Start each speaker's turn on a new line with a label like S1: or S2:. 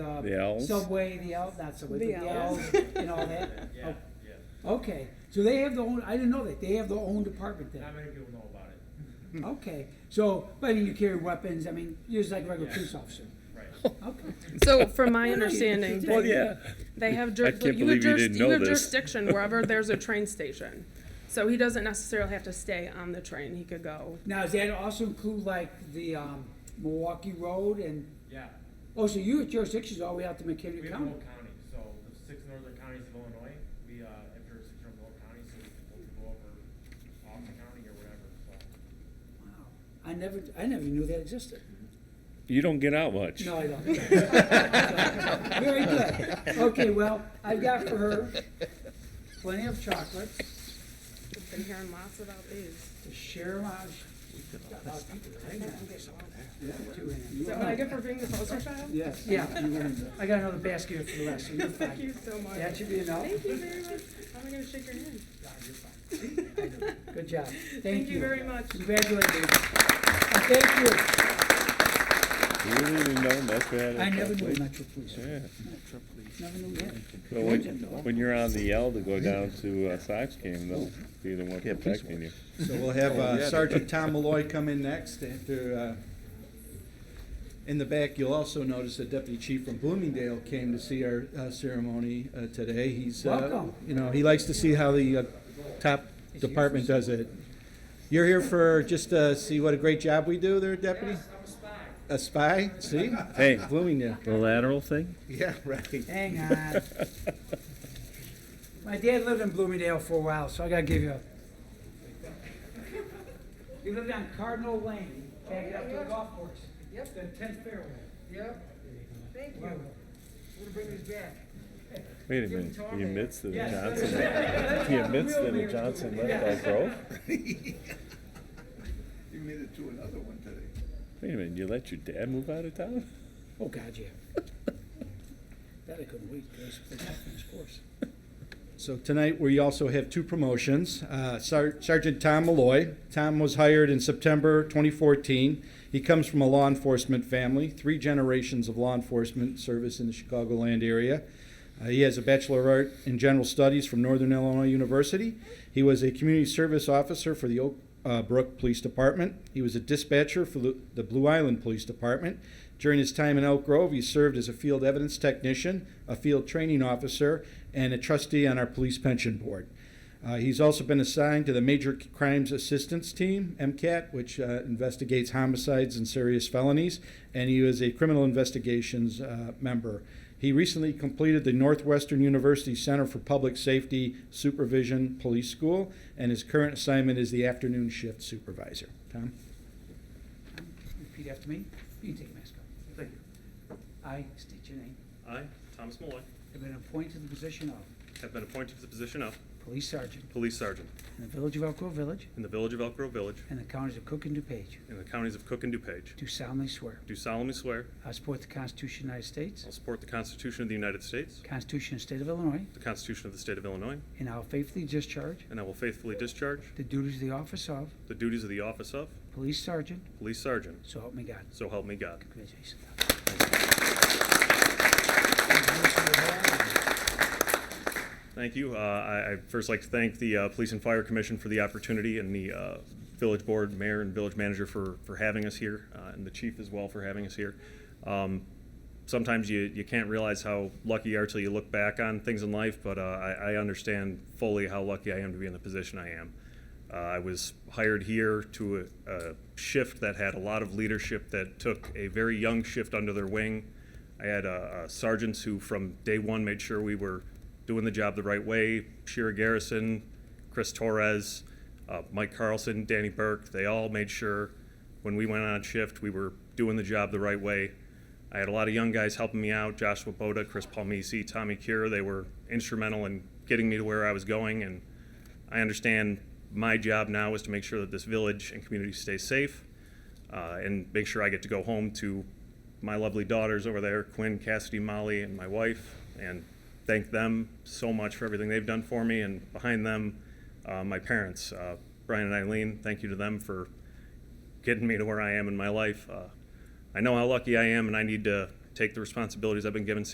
S1: uh,
S2: The Ls.
S1: Subway, the L, not Subway, but
S3: The
S1: the
S3: Ls.
S1: L's and all that.
S4: Oh.
S1: Oh,
S5: Yeah, yeah.
S1: Okay, so they have their own, I didn't know that, they have their own department
S5: Not
S1: then.
S5: many people know about it.
S1: Okay, so, but I mean, you carry weapons, I mean, you're just like a regular
S5: Yeah.
S1: police officer.
S4: Oh.
S5: Right.
S1: Okay,
S3: So from
S1: Well,
S3: my
S1: no, you-
S3: understanding,
S1: you-
S2: Well,
S3: they-
S2: yeah.
S3: They have
S2: I
S3: juris,
S2: can't
S3: you have
S2: believe you
S3: juris,
S2: didn't
S3: you
S2: know
S3: have
S2: this.
S3: jurisdiction wherever there's a train station. So he doesn't necessarily have to stay on the train, he could go.
S1: now does that also include like the um, Milwaukee Road and,
S5: Yeah,
S1: oh, so your jurisdiction's all the way out to
S5: we
S1: McHenry
S5: have the
S1: County?
S5: whole county, so the six northern counties of Illinois, we, uh, have jurisdiction over the whole county, so we can pull people over off the county or whatever, so.
S1: Wow, I never, I never knew that existed.
S2: You don't get out much.
S1: No, I don't. Very good. Okay, well, I've got for her plenty of chocolates
S3: I've Been hearing lots about these.
S1: to share my.
S3: Is that what I get for being the poster child?
S1: Yes, yeah, I got another basket here for the rest, so you're
S3: Thank you
S1: fine.
S3: so much.
S1: That should be enough.
S3: Thank you very much. How am I gonna shake your hand?
S1: Good job. Thank
S3: Thank you
S1: you.
S3: very much.
S1: Congratulations. And Thank
S2: You really didn't know much about
S1: you.
S2: it.
S1: I never knew Metro Police.
S2: Yeah.
S1: Never knew that.
S2: So when, when you're on the L to go down to uh, Sox game, they'll be the one
S6: Yeah, please.
S2: protecting you.
S6: So we'll have
S2: Oh,
S6: uh,
S2: yeah.
S6: Sergeant Tom Malloy come in next after, uh, in the back, you'll also notice that Deputy Chief from Bloomingdale came to see our uh, ceremony uh, today. He's, uh,
S1: Welcome.
S6: you know, he likes to see how the uh, top department does it. You're here for, just to see what a great job we do there, Deputy? a spy. A spy, see?
S2: Hey.
S6: Bloomingdale.
S2: The lateral thing?
S6: Yeah, right.
S1: Hang on. uh, My dad lived in Bloomingdale for a while, so I gotta give you a. He lived on Cardinal Lane, back up to the golf course. Yep. The tenth fairway.
S7: Yep. Thank you.
S1: Wow.
S7: We'll bring these back.
S2: Wait a minute, he admits that the Johnson, he admits that the Johnson left Elk Grove?
S8: You made it to another one today.
S2: Wait a minute, you let your dad move out of town?
S1: Oh, God, yeah. That I couldn't wait, because they got finished course.
S6: So tonight, we also have two promotions. Uh, Sar- Sergeant Tom Malloy. Tom was hired in September 2014. He comes from a law enforcement family, three generations of law enforcement service in the Chicagoland area. Uh, he has a Bachelor of Art in General Studies from Northern Illinois University. He was a community service officer for the Oak uh, Brook Police Department. He was a dispatcher for the, the Blue Island Police Department. During his time in Elk Grove, he served as a field evidence technician, a field training officer, and a trustee on our police pension board. Uh, he's also been assigned to the Major Crimes Assistance Team, MCAT, which uh, investigates homicides and serious felonies, and he is a criminal investigations uh, member. He recently completed the Northwestern University Center for Public Safety Supervision Police School, and his current assignment is the afternoon shift supervisor. Tom?
S1: Repeat after me. You can take your mask off.
S4: Thank you.
S1: I state your name.
S4: I, Thomas Malloy,
S1: Have been appointed to the position of
S4: have been appointed to the position of
S1: police sergeant
S4: Police Sergeant
S1: in the village of Elk Grove Village
S4: in the Village of Elk Grove Village
S1: and the counties of Cook and DuPage.
S4: in the counties of Cook and DuPage.
S1: Do solemnly swear.
S4: Do solemnly swear
S1: I support the Constitution of the United States,
S4: I'll support the Constitution of the United States,
S1: Constitution of the State of Illinois,
S4: the Constitution of the State of Illinois,
S1: and I will faithfully discharge
S4: and I will faithfully discharge
S1: the duties of the office of
S4: the duties of the office of
S1: Police Sergeant,
S4: Police Sergeant.
S1: so help me God.
S4: So help me God.
S1: Congratulations.
S4: Thank you. Uh, I, I'd first like to thank the uh, Police and Fire Commission for the opportunity and the uh, Village Board, Mayor, and Village Manager for, for having us here, uh, and the Chief as well for having us here. Um, sometimes you, you can't realize how lucky you are till you look back on things in life, but uh, I, I understand fully how lucky I am to be in the position I am. Uh, I was hired here to a, a shift that had a lot of leadership that took a very young shift under their wing. I had uh, uh, sergeants who, from day one, made sure we were doing the job the right way. Shira Garrison, Chris Torres, uh, Mike Carlson, Danny Burke, they all made sure when we went on shift we were doing the job the right way. I had a lot of young guys helping me out Joshua Boda, Chris Palmisi, Tommy Cure. They were instrumental in getting me to where I was going. And I understand my job now is to make sure that this village and community stays safe uh, and make sure I get to go home to my lovely daughters over there, Quinn, Cassidy, Molly, and my wife, and thank them so much for everything they've done for me. And behind them, uh, my parents, uh, Brian and Eileen, thank you to them for getting me to where I am in my life. Uh, I know how lucky I am, and I need to take the responsibilities I've been given